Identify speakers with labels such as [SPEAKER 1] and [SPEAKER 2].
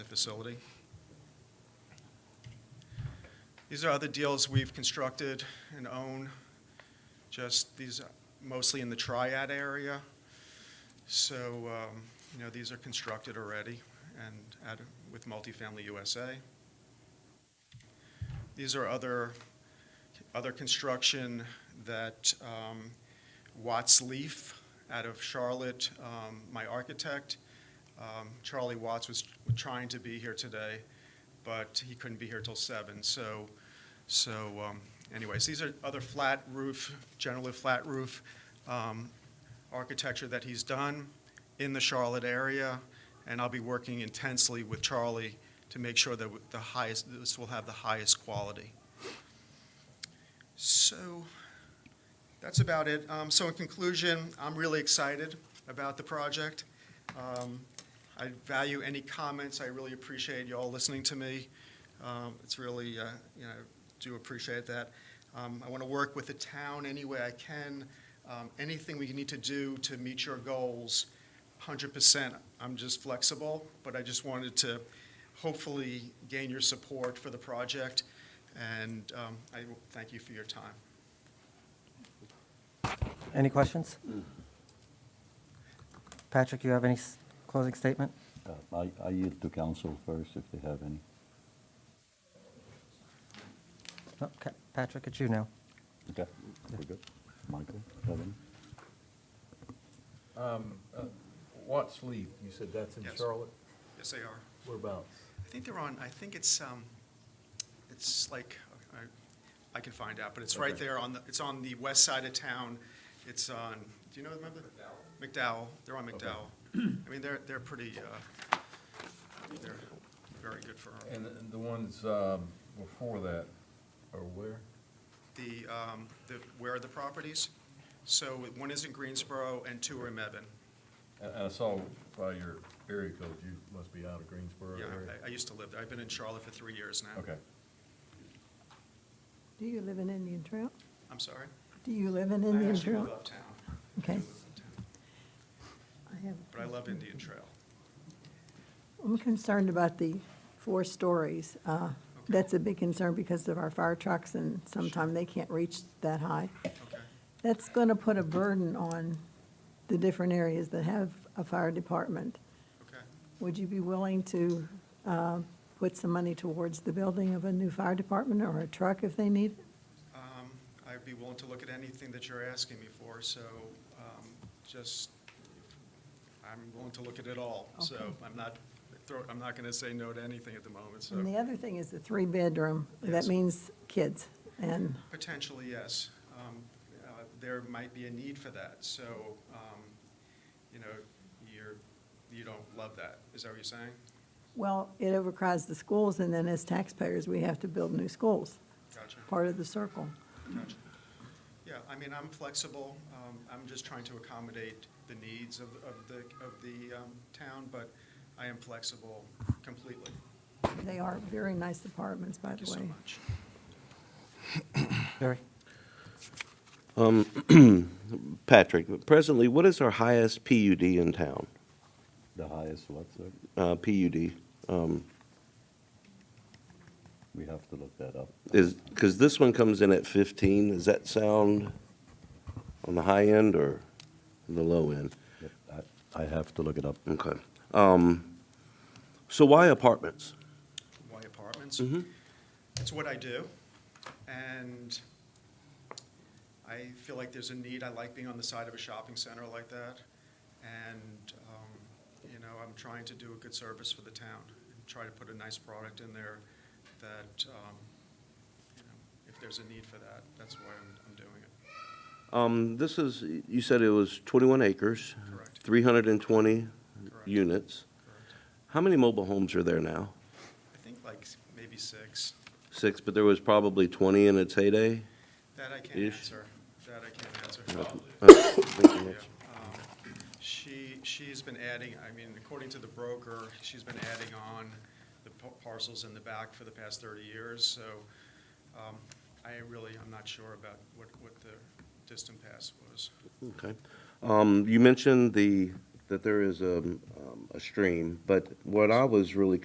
[SPEAKER 1] facility. These are other deals we've constructed and own, just these are mostly in the Triad area. So, um, you know, these are constructed already and at, with Multifamily USA. These are other, other construction that um, Watts Leaf out of Charlotte, um, my architect, um, Charlie Watts was trying to be here today, but he couldn't be here till seven. So, so um, anyways, these are other flat roof, generally flat roof um, architecture that he's done in the Charlotte area, and I'll be working intensely with Charlie to make sure that the highest, this will have the highest quality. So that's about it. Um, So in conclusion, I'm really excited about the project. Um, I value any comments. I really appreciate y'all listening to me. Um, It's really, uh, you know, do appreciate that. Um, I want to work with the town any way I can. Um, Anything we need to do to meet your goals, 100%. I'm just flexible, but I just wanted to hopefully gain your support for the project, and um, I thank you for your time.
[SPEAKER 2] Any questions? Patrick, you have any s- closing statement?
[SPEAKER 3] Uh, I I yield to council first if they have any.
[SPEAKER 2] No, Ca- Oh, Patrick, it's you now.
[SPEAKER 3] Okay. We're good. Michael, have any?
[SPEAKER 4] Watts Leaf, you said that's in
[SPEAKER 1] Yes.
[SPEAKER 4] Charlotte?
[SPEAKER 1] Yes, they are.
[SPEAKER 4] Whereabouts?
[SPEAKER 1] I think they're on, I think it's, um, it's like, I, I can find out, but it's right
[SPEAKER 4] Okay.
[SPEAKER 1] there on the, it's on the west side of town. It's on, do you know, remember? McDowell. McDowell, they're on
[SPEAKER 4] Okay.
[SPEAKER 1] McDowell. I mean, they're, they're pretty, uh, they're very good for
[SPEAKER 4] And the- the ones um, before that are where?
[SPEAKER 1] the, um, the, where are the properties? So one is in Greensboro and two are in Mebane.
[SPEAKER 4] And and I saw by your area code, you must be out of Greensboro
[SPEAKER 1] Yeah,
[SPEAKER 4] area.
[SPEAKER 1] I, I used to live there. I've been in Charlotte for three years now.
[SPEAKER 4] Okay.
[SPEAKER 5] Do you live in Indian Trail?
[SPEAKER 1] I'm sorry?
[SPEAKER 5] Do you live in
[SPEAKER 1] I
[SPEAKER 5] Indian
[SPEAKER 1] actually live
[SPEAKER 5] Trail?
[SPEAKER 1] uptown.
[SPEAKER 5] Okay.
[SPEAKER 1] I live uptown.
[SPEAKER 5] I have,
[SPEAKER 1] But I love Indian Trail.
[SPEAKER 5] I'm concerned about the four stories. Uh, That's a big concern because of our fire trucks and sometimes they can't reach that high.
[SPEAKER 1] Okay.
[SPEAKER 5] That's going to put a burden on the different areas that have a fire department.
[SPEAKER 1] Okay.
[SPEAKER 5] Would you be willing to uh, put some money towards the building of a new fire department or a truck if they need? it?
[SPEAKER 1] Um, I'd be willing to look at anything that you're asking me for, so um, just, I'm willing to look at it all. So
[SPEAKER 5] Okay.
[SPEAKER 1] I'm not, throw- I'm not going to say no to anything at the moment, so
[SPEAKER 5] And the other thing is the three-bedroom. That
[SPEAKER 1] Yes.
[SPEAKER 5] means kids. And
[SPEAKER 1] potentially, yes. Um, uh, There might be a need for that, so, um, you know, you're, you don't love that, is that what you're saying?
[SPEAKER 5] Well, it overcrowds the schools, and then as taxpayers, we have to build new schools,
[SPEAKER 1] Gotcha,
[SPEAKER 5] part of the circle.
[SPEAKER 1] gotcha. Yeah, I mean, I'm flexible, Um, I'm just trying to accommodate the needs of of the, of the um, town, but I am flexible completely.
[SPEAKER 5] They are very nice apartments, by
[SPEAKER 1] Thank you
[SPEAKER 5] the
[SPEAKER 1] so
[SPEAKER 5] way.
[SPEAKER 1] much.
[SPEAKER 2] Barry?
[SPEAKER 6] Patrick, presently, what is our highest PUD in town?
[SPEAKER 3] The highest what, sir?
[SPEAKER 6] Uh, PUD um,
[SPEAKER 3] We have to look that up.
[SPEAKER 6] is, because this one comes in at 15. Does that sound on the high end or the low end?
[SPEAKER 3] Yep, I- I have to look it up.
[SPEAKER 6] Okay. Um, So why apartments?
[SPEAKER 1] Why apartments?
[SPEAKER 6] Mhm.
[SPEAKER 1] It's what I do, and I feel like there's a need. I like being on the side of a shopping center like that, and, um, you know, I'm trying to do a good service for the town, and try to put a nice product in there that, um, you know, if there's a need for that, that's why I'm, I'm doing it.
[SPEAKER 6] Um, This is, you said it was 21 acres,
[SPEAKER 1] Correct.
[SPEAKER 6] 320
[SPEAKER 1] Correct.
[SPEAKER 6] units.
[SPEAKER 1] Correct.
[SPEAKER 6] How many mobile homes are there now?
[SPEAKER 1] I think like s- maybe six.
[SPEAKER 6] Six, but there was probably 20 in its heyday?
[SPEAKER 1] That I can't
[SPEAKER 6] Ish.
[SPEAKER 1] answer. That I can't answer.
[SPEAKER 6] Uh, thank you,
[SPEAKER 1] Yeah,
[SPEAKER 6] Mitch.
[SPEAKER 1] um, She, she's been adding, I mean, according to the broker, she's been adding on the par- parcels in the back for the past 30 years, so um, I really, I'm not sure about what, what the distant past was.
[SPEAKER 6] Okay. Um, You mentioned the, that there is um, um, a stream, but what I was really